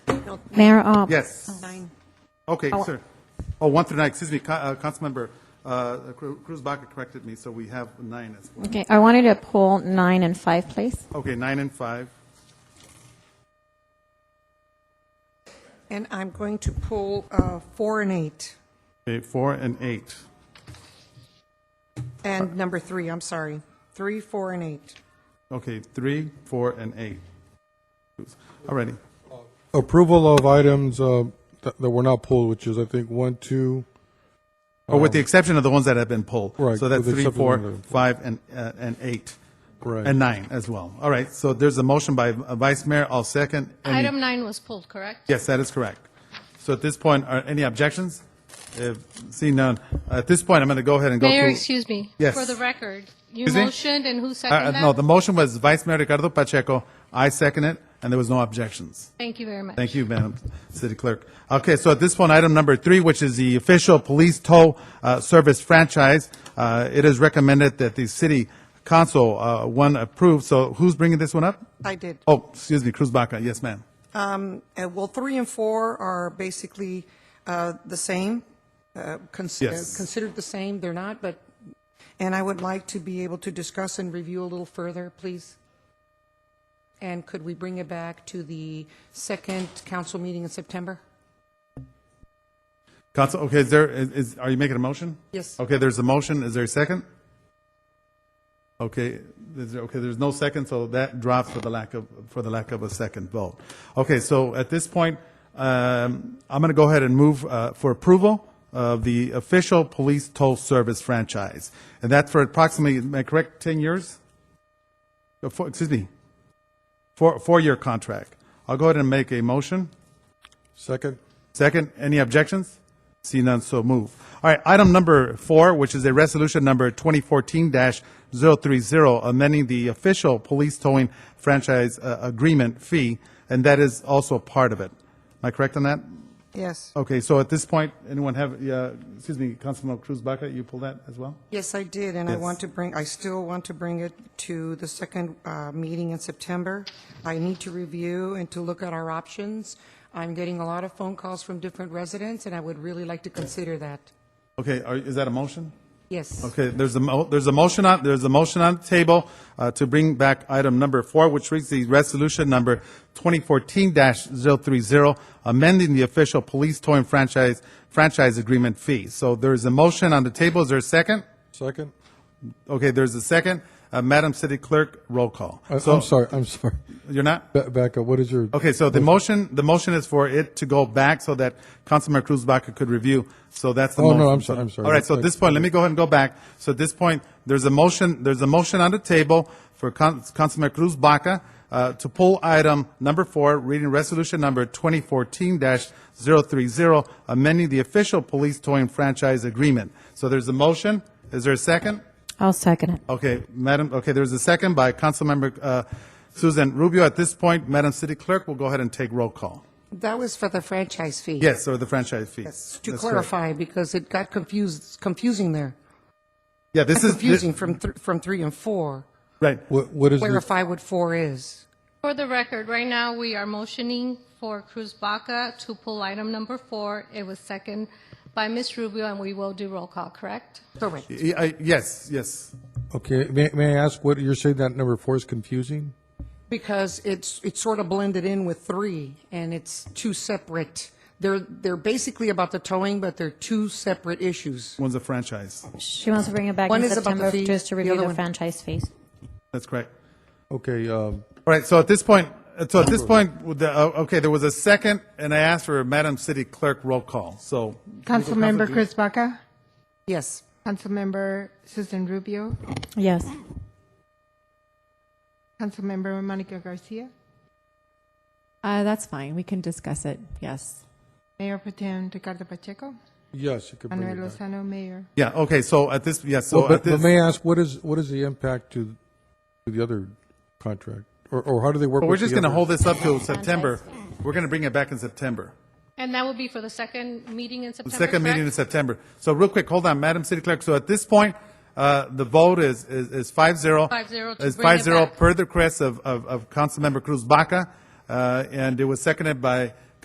Mayor Ob. Yes. Okay, Oh. sir. Oh, one through nine, excuse me, Ca- uh, Councilmember uh, Cru- Cruz Baca corrected me, so we have nine as well. Okay, I wanted to pull nine and five, please. Okay, nine and five. And I'm going to pull uh, four and eight, Okay, four and eight. and number three, I'm sorry. Three, four, and eight. Okay, three, four, and eight. Alrighty. Approval of items uh, that that were not pulled, which is, I think, one, two, Or with the exception of the ones that have been pulled. Um, Right, So that's with the three, exception four, of the ones that five, and, uh, and eight. Right. And nine as well. All right, so there's a motion by uh, Vice Mayor, I'll second. Any- Item nine was pulled, correct? Yes, that is correct. So at this point, are any objections? If- Seeing none, at this point, I'm going to go ahead and go through. Mayor, excuse me. Yes. For the record, you Excuse me? motioned and who Uh, seconded that? No, the motion was Vice Mayor Ricardo Pacheco, I second it, and there was no objections. Thank you very much. Thank you, Madam City Clerk. Okay, so at this point, item number three, which is the official police tow uh, service franchise, uh, it is recommended that the city council uh, one approve. So who's bringing this one up? I did. Oh, excuse me, Cruz Baca, yes, ma'am. Um, uh, Well, three and four are basically uh, the same, uh, cons- uh, Yes. considered the same, they're not, but, and I would like to be able to discuss and review a little further, please. And could we bring it back to the second council meeting in September? Council, okay, is there, is- is, are you making a motion? Yes. Okay, there's a motion, is there a second? Okay, is there, okay, there's no second, so that drops for the lack of, for the lack of a second vote. Okay, so at this point, um, I'm going to go ahead and move uh, for approval of the official police toll service franchise. And that's for approximately, am I correct, 10 years? Uh, four- Excuse me, four, four-year contract. I'll go ahead and make a motion. second. Second, any objections? See none, so move. All right, item number four, which is a resolution number 2014-030, amending the official police towing franchise uh, agreement fee, and that is also part of it. Am I correct on that? Yes. Okay, so at this point, anyone have, uh, excuse me, Councilman Cruz Baca, you pull that as well? Yes, I did, and I Yes. want to bring, I still want to bring it to the second uh, meeting in September. I need to review and to look at our options. I'm getting a lot of phone calls from different residents, and I would really like to consider that. Okay, are- is that a motion? Yes. Okay, there's a, mo- there's a motion on, there's a motion on the table uh, to bring back item number four, which reads the resolution number 2014-030, amending the official police toy and franchise, franchise agreement fee. So there's a motion on the table. Is there a second? Second? Okay, there's a second. Uh, Madam City Clerk, roll call. I- So- Uh, I'm sorry, I'm sorry. You're not? Ba- Back up, what is your? Okay, so the motion, the motion is for it to go back so that Councilman Cruz Baca could review. So that's the Oh, motion. no, I'm sorry, I'm sorry. All right, so at That's- this point, let me go ahead and go back. So at this point, there's a motion, there's a motion on the table for Con- Councilman Cruz Baca uh, to pull item number four, reading resolution number 2014-030, amending the official police towing franchise agreement. So there's a motion. Is there a second? I'll second it. Okay, Madam, okay, there's a second by Councilmember uh, Susan Rubio. At this point, Madam City Clerk will go ahead and take roll call. That was for the franchise fee. Yes, or the franchise fee. Yes, To That's correct. clarify, because it got confused, confusing there. Yeah, this is, Confusing from, thr- from three and four. right, What what is the? Clarify what four is. For the record, right now, we are motioning for Cruz Baca to pull item number four. It was second by Ms. Rubio, and we will do roll call, correct? Correct. Y- I- yes, yes. Okay, may may I ask what, you're saying that number four is confusing? Because it's, it's sort of blended in with three, and it's two separate. They're, they're basically about the towing, but they're two separate issues. One's a franchise, She wants to bring it back One in is about the September fee, just to the review other the one- franchise fees. that's correct. Okay, um, All right, so at this point, so at this point, with the- oh, okay, there was a second, and I asked for Madam City Clerk roll call, so. Councilmember Chris Baca, Yes. Councilmember Susan Rubio, Yes. Councilmember Monica Garcia, Uh, that's fine. We can discuss it. Yes. Mayor Protem Ricardo Pacheco, yes, you could bring Manuel it back. Lozano, Mayor. Yeah, okay, so at this, yes, Well, so at But but this, may I ask, what is, what is the impact to to the other contract? Or or how do they work but we're with just the going to other- hold this up till September. We're going to bring it back in September. And that will be for the second meeting in September, Second meeting in correct? September. So real quick, hold on, Madam City Clerk. So at this point, uh, the vote is, is, is five zero. 5-0 to Is bring it five zero back. per the request of, of, of Councilmember Cruz Baca. Uh, and it was seconded by